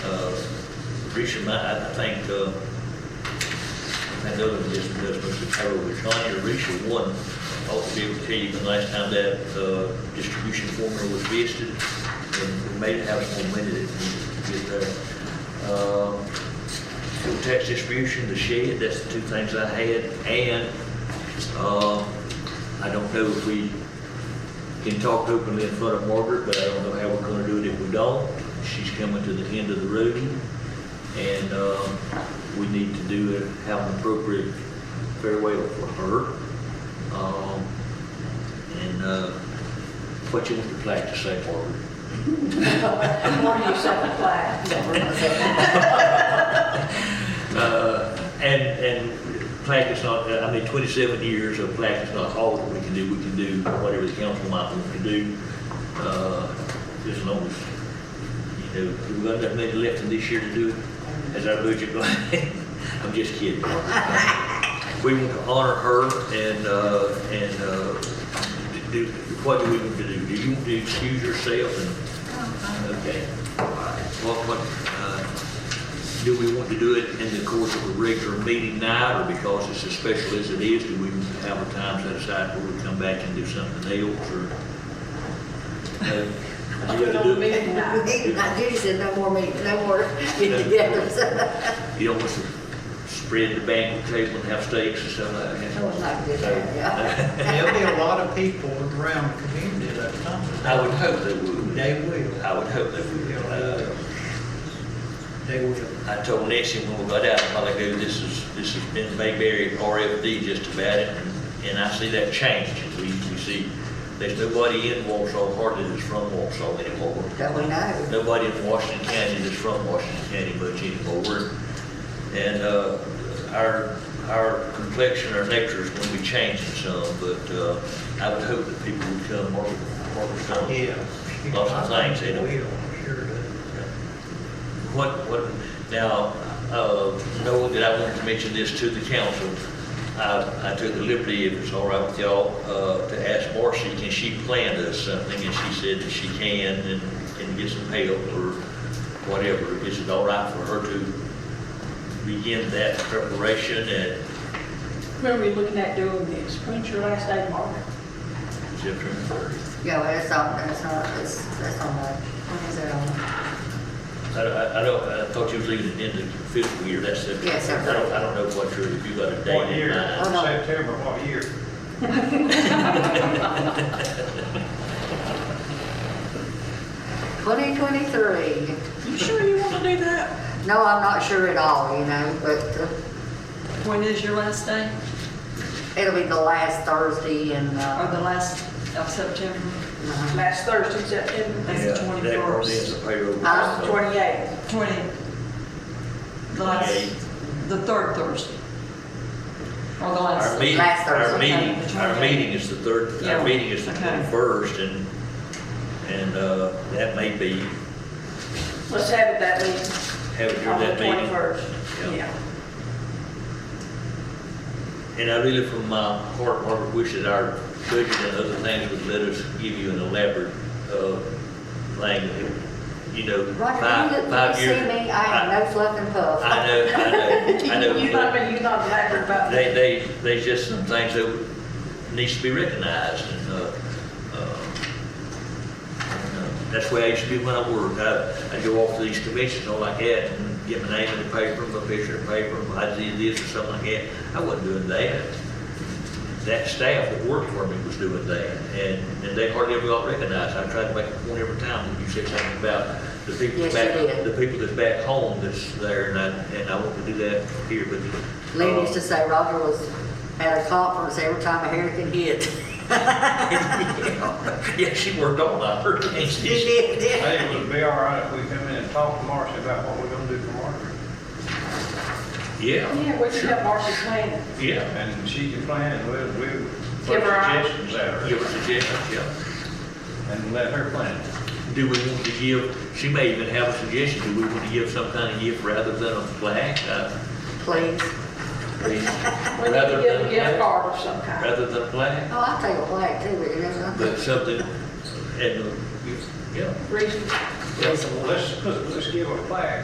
Uh, Richard, I, I think, uh, I know that this, this Mr. Carroll, which on your Richard one, I ought to be able to tell you the last time that, uh, distribution formula was visited, and we may have some more money that we need to get there. Um, fuel tax distribution, the shed, that's the two things I had, and, uh, I don't know if we can talk openly in front of Margaret, but I don't know how we're gonna do it if we don't. She's coming to the end of the road, and, um, we need to do, it have an appropriate farewell for her. Um, and, uh, what you want the plaque to say, Margaret? What do you say, Uh, and, and plaque is not, I mean, twenty-seven years of plaque is not all that we can do, we can do whatever the council might want to do. Uh, as long as, you know, we've got that many left in this year to do it, as our budget goes. I'm just kidding. We want to honor her and, uh, and, uh, do, what do we want to do? Do you want to excuse yourself and, okay? All right. What, what, uh, do we want to do it in the course of a regular meeting night, or because it's as special as it is, do we have a time set aside where we come back and do something else, or? Uh, You have to do it. I Judy said no more meeting, no more get-togethers. You don't want to spread the banquet table and have steaks and stuff like that. No one likes this, yeah. There'll be a lot of people around the community that come. I would hope they would. They will. I would hope they would. Uh, They will. I told Nancy when we got out, a while ago, this is, this has been Bayberry RFD just about it, and I see that change. We, we see, there's nobody in Walsall hardly that's from Walsall anymore. That we know. Nobody in Washington County that's from Washington County much anymore. And, uh, our, our complexion, our nature is going to be changing some, but, uh, I would hope that people would come, Margaret, Margaret's done Yeah. Lots of things, they don't- Will, sure do. What, what, now, uh, knowing that I wanted to mention this to the council, I, I took the liberty, if it's all right with y'all, uh, to ask Marcy, can she plan us something? And she said that she can and, and get some help or whatever. Is it all right for her to begin that preparation and Remember we looking at doing this, when's your last day, Margaret? September first? Yeah, well, that's all, that's all, that's, that's on the, what is that on? I, I, I don't, I thought you was leaving it in the fiscal year, that's September. Yes, sir. I don't, I don't know what your, if you got a date What in year? mind. Oh, no. September, what year? Twenty twenty-three. You sure you want to do that? No, I'm not sure at all, you know, but uh, When is your last day? it'll be the last Thursday and, Or the uh, last of September? uh, Last Thursday, September That's the Yeah, that 21st. probably is a payroll. Huh? So- twenty-eighth. Twenty. The last, Twenty-eight. the third Thursday? Or the Our last? meeting, Last our Thursday. meeting, our meeting is the third, our Yeah. meeting is the Okay. twenty-first, and, and, uh, that may be, Let's have it that meeting, have it during on the that meeting. twenty-first. Yeah. Yeah. And I really, from my heart, Margaret, wish that our budget and other things would let us give you an elaborate, uh, thing, you know, Roger, five, you look, five you years. see me, I am no fluff and puff. I know, I know, I know. You not, been- you not blabbering about They, that. they, there's just some things that needs to be recognized, and, uh, uh, that's the way I used to be when I worked. I, I'd go off to these conventions and all like that, and get my name in the paper, my picture in the paper, I did this or something like that. I wasn't doing that. That staff that worked for me was doing that, and, and they hardly ever got recognized. I tried to make a point every time when you said something about the people Yes, you back, did. the people that's back home that's there, and I, and I want to do that here, but. Lynn uh, used to say Roger was at a conference every time a hurricane hit. Yeah, she worked all night, her case. She did, Hey, did. it would be all right if we come in and talk to Marcy about what we're gonna do for Marcy. Yeah, Yeah, we should have Marcy plan. yeah. And she can plan, and we'll, we'll Give put her our- suggestions out Give her suggestions, yeah. and let her plan. Do we want to give, she may even have a suggestion, do we want to give some kind of gift rather than a plaque? Uh, Please. I mean, We need Rather to give than a a gift plaque? card of some kind. Rather than a plaque, Oh, I'll take a flag too, but it doesn't. but something, and, uh, yeah. Reason. Let's, let's, let's give her a plan.